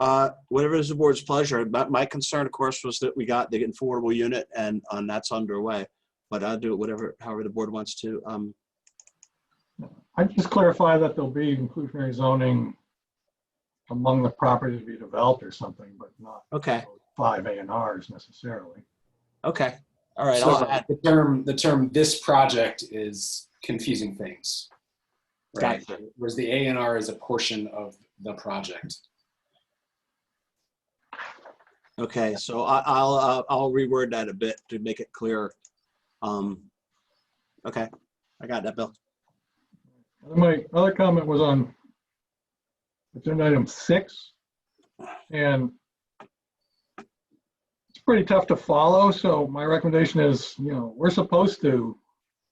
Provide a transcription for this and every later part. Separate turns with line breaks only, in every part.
Uh, Whatever is the board's pleasure. My, my concern, of course, was that we got the affordable unit and, uh, and that's underway. But I'll do it whatever, however the board wants to. Um,
I just clarify that there'll be inclusionary zoning among the properties to be developed or something, but not
Okay,
five A and Rs necessarily.
okay, all right. I'll
So
add-
the term, the term "this project" is confusing things. Right?
Gotcha.
Whereas the A and R is a portion of the project.
Okay, so I, I'll, uh, I'll reword that a bit to make it clearer. Um, okay, I got that, Bill.
And My other comment was on agenda item six, and it's pretty tough to follow, so my recommendation is, you know, we're supposed to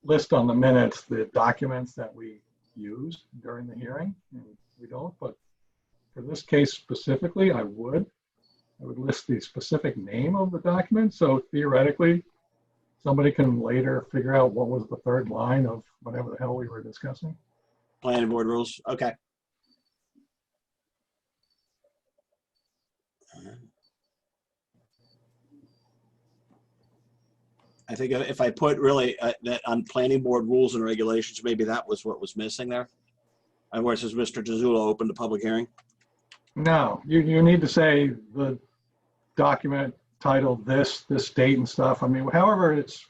list on the minutes the documents that we use during the hearing, and we don't, but for this case specifically, I would. I would list the specific name of the document, so theoretically, somebody can later figure out what was the third line of whatever the hell we were discussing.
Planning board rules, okay. I think if I put really uh, that on planning board rules and regulations, maybe that was what was missing there. And where it says Mr. DeZulo opened the public hearing.
No, you, you need to say the document titled this, this date and stuff. I mean, however, it's,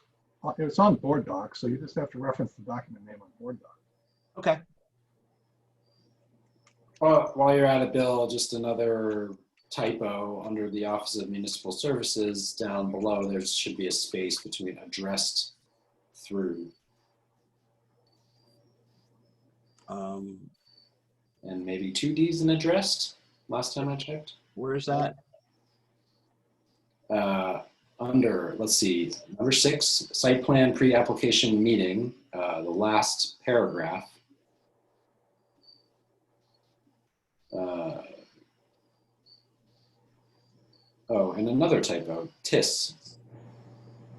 it's on board docs, so you just have to reference the document name on board doc.
Okay,
Well, while you're at it, Bill, just another typo under the Office of Municipal Services down below. There should be a space between addressed through
um,
and maybe two D's in addressed. Last time I checked,
where is that?
uh, under let's see, number six, site plan pre-application meeting, uh, the last paragraph. Uh, Oh, and another typo, TIS.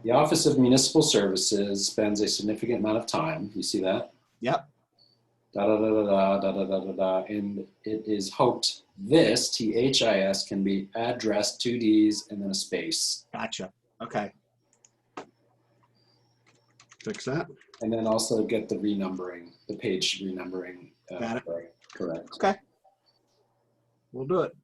The Office of Municipal Services spends a significant amount of time, you see that?
Yep.
Da da da da da da da da da, and it is hoped this, T H I S, can be addressed, two Ds and then a space.
Gotcha, okay. Fix that,
And then also get the renumbering, the page renumbering. uh,
Got it.
correct- Correct.
we'll do it.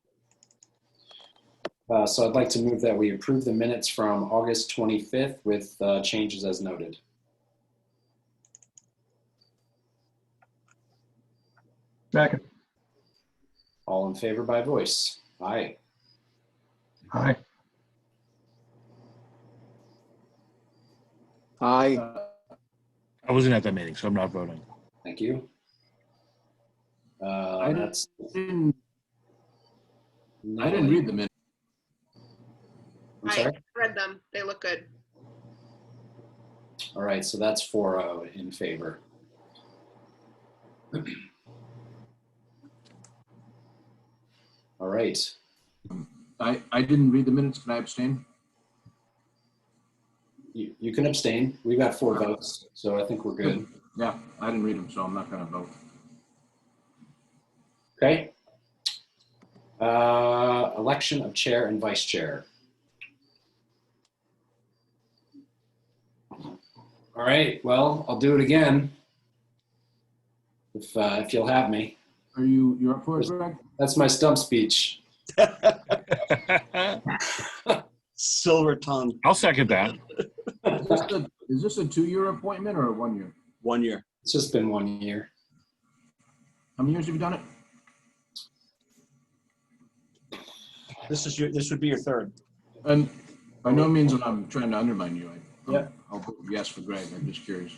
Uh, So I'd like to move that we approve the minutes from August 25th with uh, changes as noted.
Second,
All in favor by voice? Aye.
aye,
Aye.
Uh,
I wasn't at that meeting, so I'm not voting.
Thank you. Uh,
I
that's
didn't- I
not
didn't
only-
read the minutes.
I'm sorry.
Read them. They look good.
All right, so that's 4-0 in favor. All right,
I, I didn't read the minutes. Can I abstain?
you, you can abstain. We got four votes, so I think we're good.
Yeah, I didn't read them, so I'm not going to vote.
Okay. Uh, election of chair and vice chair. All right, well, I'll do it again. If, uh, if you'll have me.
Are you, you're up for it, Greg?
That's my stump speech.
Silver tongue,
I'll second that.
Is this a- Is this a two-year appointment or a one-year?
one year.
It's just been one year.
How many years have you done it?
This is your, this would be your third.
And by no means am I trying to undermine you. I-
Yeah.
I'll vote yes for Greg. I'm just curious.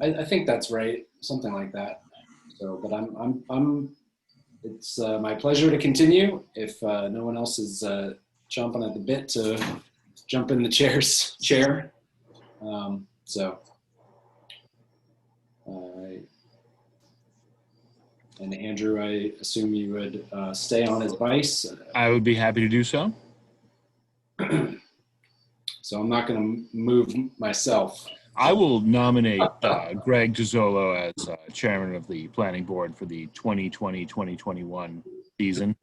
I, I think that's right, something like that. So, but I'm, I'm, I'm. It's uh, my pleasure to continue. If uh, no one else is uh, chomping at the bit to jump in the chairs chair, um, so. Uh, and Andrew, I assume you would uh, stay on as vice.
I would be happy to do so.
So I'm not going to move myself.
I will nominate uh, Greg DiZolo as uh, chairman of the planning board for the 2020-2021 season.